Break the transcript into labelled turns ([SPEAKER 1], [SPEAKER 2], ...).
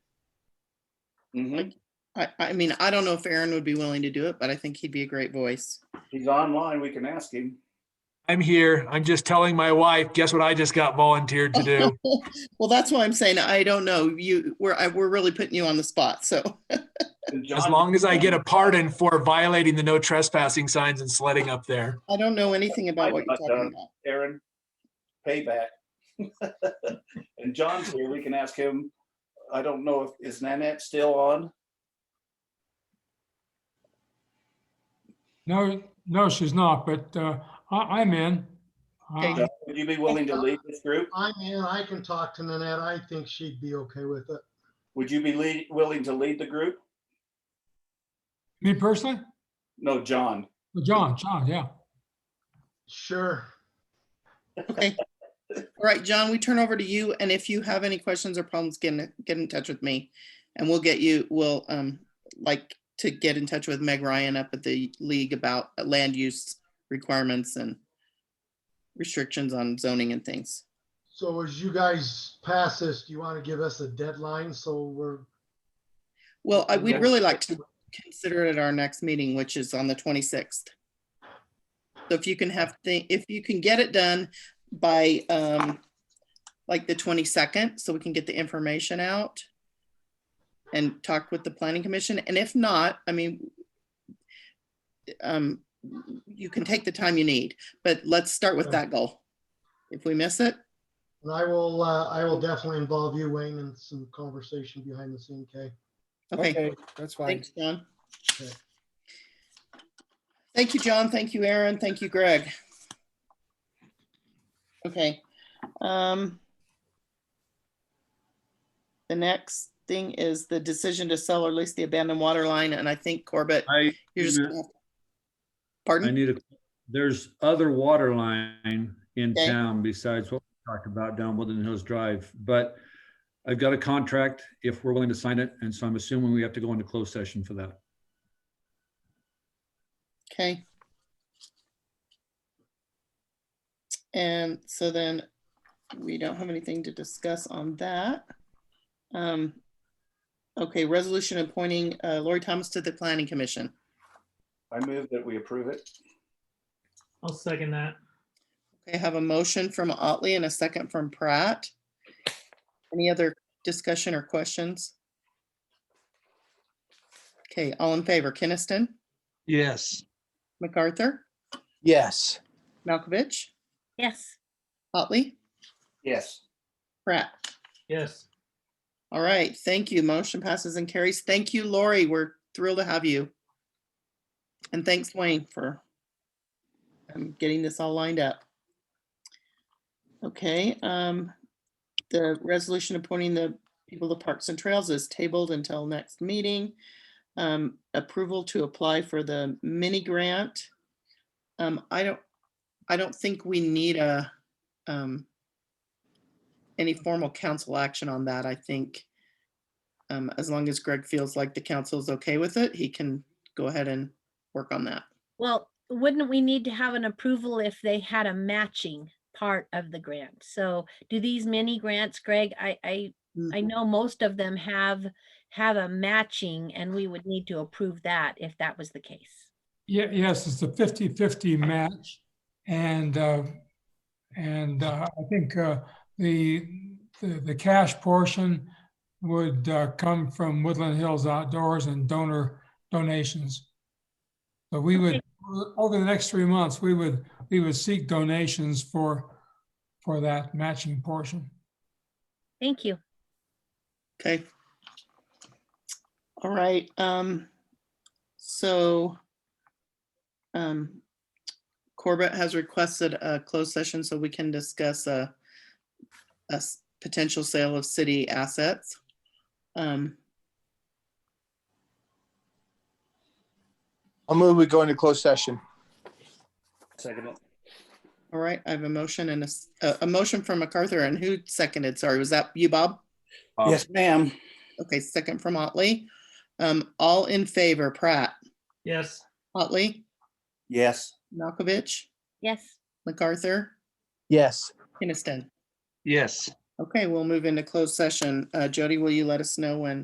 [SPEAKER 1] Mm-hmm.
[SPEAKER 2] Mhm.
[SPEAKER 3] I, I mean, I don't know if Aaron would be willing to do it, but I think he'd be a great voice.
[SPEAKER 2] He's online. We can ask him.
[SPEAKER 1] I'm here. I'm just telling my wife, guess what I just got volunteered to do?
[SPEAKER 3] Well, that's why I'm saying I don't know. You, we're, I, we're really putting you on the spot, so.
[SPEAKER 1] As long as I get a pardon for violating the no trespassing signs and sledding up there.
[SPEAKER 3] I don't know anything about what you're
[SPEAKER 2] But, uh,
[SPEAKER 3] talking about.
[SPEAKER 2] Aaron, payback. And John's here. We can ask him. I don't know if, is Nanette still on?
[SPEAKER 4] No, no, she's not, but uh, I, I'm in.
[SPEAKER 3] Okay.
[SPEAKER 4] Uh,
[SPEAKER 2] John, Would you be willing to lead this group?
[SPEAKER 5] I'm in, I can talk to Nanette. I think she'd be okay with it.
[SPEAKER 2] Would you be lead, willing to lead the group?
[SPEAKER 4] Me personally?
[SPEAKER 2] No, John.
[SPEAKER 4] John, John, yeah.
[SPEAKER 5] Sure.
[SPEAKER 3] Okay. All right, John, we turn over to you, and if you have any questions or problems, get in, get in touch with me. And we'll get you, we'll, um, like to get in touch with Meg Ryan up at the league about land use requirements and restrictions on zoning and things.
[SPEAKER 5] So as you guys pass this, do you want to give us a deadline? So we're,
[SPEAKER 3] Well, I,
[SPEAKER 5] Yeah.
[SPEAKER 3] we'd really like to consider it at our next meeting, which is on the twenty-sixth. So if you can have, thi- if you can get it done by, um, like the twenty-second, so we can get the information out and talk with the planning commission, and if not, I mean, um, you can take the time you need, but let's start with that goal. If we miss it,
[SPEAKER 5] and I will, uh, I will definitely involve you, Wayne, in some conversation behind the scene, okay?
[SPEAKER 3] okay.
[SPEAKER 6] Okay, that's fine.
[SPEAKER 3] Thanks, John.
[SPEAKER 5] Okay.
[SPEAKER 3] Thank you, John. Thank you, Aaron. Thank you, Greg. Okay. um, The next thing is the decision to sell or lease the abandoned water line, and I think Corbett,
[SPEAKER 7] I,
[SPEAKER 3] you're just. gonna have-
[SPEAKER 7] I
[SPEAKER 3] Pardon?
[SPEAKER 7] need a, there's other water line in
[SPEAKER 3] Okay.
[SPEAKER 7] town besides what we talked about down Woodland Hills Drive, but I've got a contract if we're willing to sign it, and so I'm assuming we have to go into closed session for that.
[SPEAKER 3] Okay. And so then we don't have anything to discuss on that. Um, Okay, resolution appointing uh, Lori Thomas to the planning commission.
[SPEAKER 2] I move that we approve it.
[SPEAKER 8] I'll second that.
[SPEAKER 3] Okay, I have a motion from Otley and a second from Pratt. Any other discussion or questions? Okay, all in favor, Kinnison,
[SPEAKER 1] Yes.
[SPEAKER 3] MacArthur,
[SPEAKER 6] Yes.
[SPEAKER 3] Malkovich,
[SPEAKER 9] Yes.
[SPEAKER 3] Otley,
[SPEAKER 2] Yes.
[SPEAKER 3] Pratt.
[SPEAKER 8] Yes.
[SPEAKER 3] All right, thank you. Motion passes and carries. Thank you, Lori. We're thrilled to have you. And thanks, Wayne, for um, getting this all lined up. Okay, um, the resolution appointing the people to Parks and Trails is tabled until next meeting. Um, Approval to apply for the mini grant. Um, I don't, I don't think we need a um, any formal council action on that, I think. Um, as long as Greg feels like the council is okay with it, he can go ahead and work on that.
[SPEAKER 9] Well, wouldn't we need to have an approval if they had a matching part of the grant? So do these mini grants, Greg? I, I, I
[SPEAKER 3] Mm-hmm.
[SPEAKER 9] know most of them have, have a matching and we would need to approve that if that was the case.
[SPEAKER 4] Yeah, yes, it's a 50-50 match. And, uh, and uh, I think uh, the, the the cash portion would uh, come from Woodland Hills Outdoors and donor donations. So we would, over the next three months, we would, we would seek donations for, for that matching portion.
[SPEAKER 9] Thank you.
[SPEAKER 3] Okay. All right, um, so um, Corbett has requested a closed session so we can discuss a a s- potential sale of city assets. Um,
[SPEAKER 6] I'll move, we go into closed session.
[SPEAKER 2] Second it.
[SPEAKER 3] All right, I have a motion and a s- a, a motion from MacArthur and who seconded? Sorry, was that you, Bob?
[SPEAKER 2] Yes, ma'am.
[SPEAKER 3] Okay, second from Otley. Um, all in favor, Pratt,
[SPEAKER 8] Yes.
[SPEAKER 3] Otley,
[SPEAKER 2] Yes.
[SPEAKER 3] Malkovich,
[SPEAKER 9] Yes.
[SPEAKER 3] MacArthur,
[SPEAKER 6] Yes.
[SPEAKER 3] Kinnison.
[SPEAKER 1] Yes.
[SPEAKER 3] Okay, we'll move into closed session. Uh, Jody, will you let us know when